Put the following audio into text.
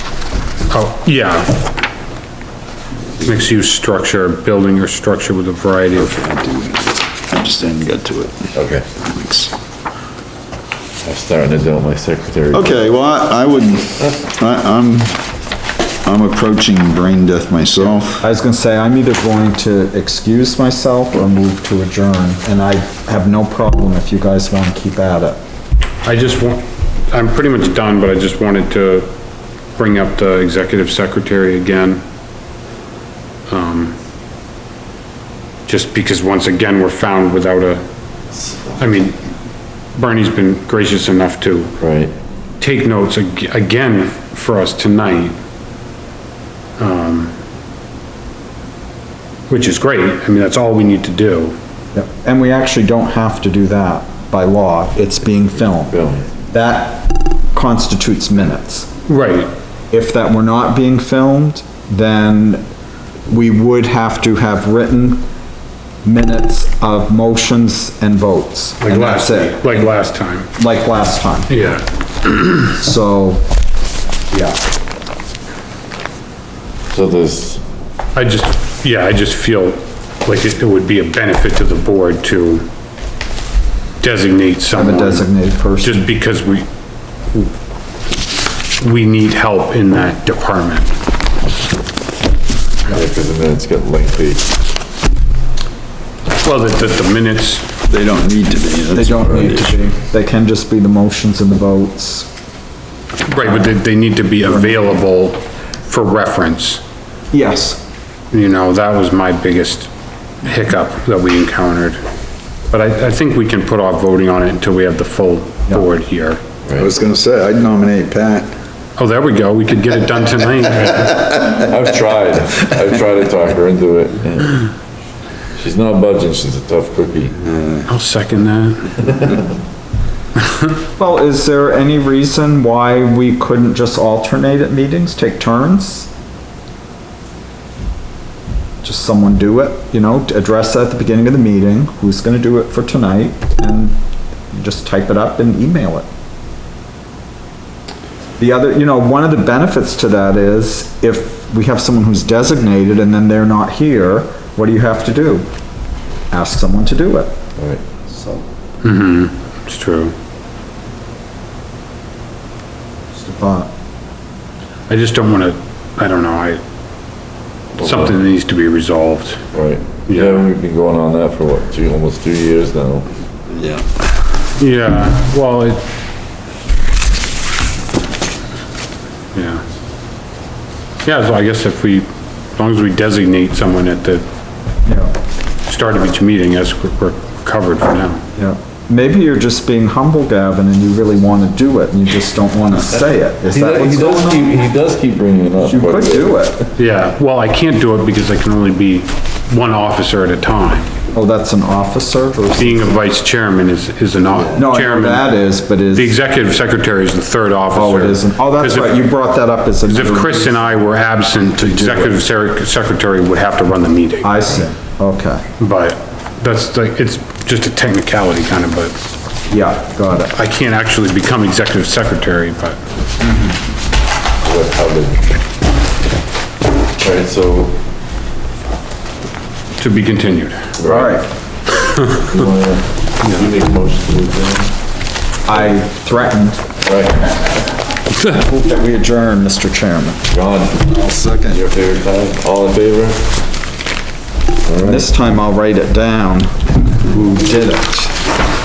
Oh, Yeah. Mixed-use structure, building or structure with a variety of, I just didn't get to it. Okay, I'm starting to do my secretary. Okay, well, I I would, I, I'm, I'm approaching brain death myself. I was gonna say, I'm either going to excuse myself or move to adjourn, and I have no problem if you guys wanna keep at it. I just want, I'm pretty much done, but I just wanted to bring up the executive secretary again. Um, just because once again, we're found without a, I mean, Bernie's been gracious enough to Right, take notes ag- again for us tonight. um, Which is great, I mean, that's all we need to do. Yep. And we actually don't have to do that by law, it's being filmed. Bill. That constitutes minutes. Right, If that were not being filmed, then we would have to have written minutes of motions and votes. like and that's last, it. like last time, Like last time, yeah. so, yeah. So there's, I just, yeah, I just feel like it it would be a benefit to the board to designate Have someone. a designated person. Just because we, we need help in that department. yeah, cause the minutes get lengthy. Well, the, the- the minutes, They don't need to be. They that's don't what it need is. to be. They can just be the motions and the votes. right, but they, they need to be available for reference. Yes. You know, that was my biggest hiccup that we encountered. But I, I think we can put off voting on it until we have the full board here. I was gonna say, I'd nominate Pat. Oh, there we go, we could get it done tonight. I've tried, I've tried to talk her into it. and She's not budging, she's a tough cookie. I'll second that. Well, is there any reason why we couldn't just alternate at meetings, take turns? Just someone do it, you know, to address that at the beginning of the meeting, who's gonna do it for tonight, and just type it up and email it. The other, you know, one of the benefits to that is if we have someone who's designated and then they're not here, what do you have to do? Ask someone to do it. Alright, So, It's true. just a thought. I just don't wanna, I don't know, I, something needs to be resolved. alright. Yeah, we've been going on that for what, two, almost two years now. Yeah. Yeah, well, it. Yeah. Yeah, so I guess if we, as long as we designate someone at the Yeah. start of each meeting, as we're we're covered for now. Yeah, maybe you're just being humble, Gavin, and you really want to do it, and you just don't want to say it. Is He that does, what's he does going on? keep, he does keep bringing it up. You but- could do it. Yeah, well, I can't do it because I can only be one officer at a time. Oh, that's an officer versus, Being a vice chairman is, is an off. no, I know chairman. that is, but is, The executive secretary is the third officer. oh, it isn't. Oh, that's 'Cause if- right, you brought that up as a. Because if Chris and I were absent, the executive sec- secretary would have to run the meeting. I see, okay, But that's like, it's just a technicality kind of, but yeah, got it. I can't actually become executive secretary, but what happened. Alright, so, to be continued. All right, you wanna, you make a motion to adjourn? I threatened Right, that we adjourn, Mr. Chairman. John, I'll second. your favorite time, all in favor? This time I'll write it down, who did it.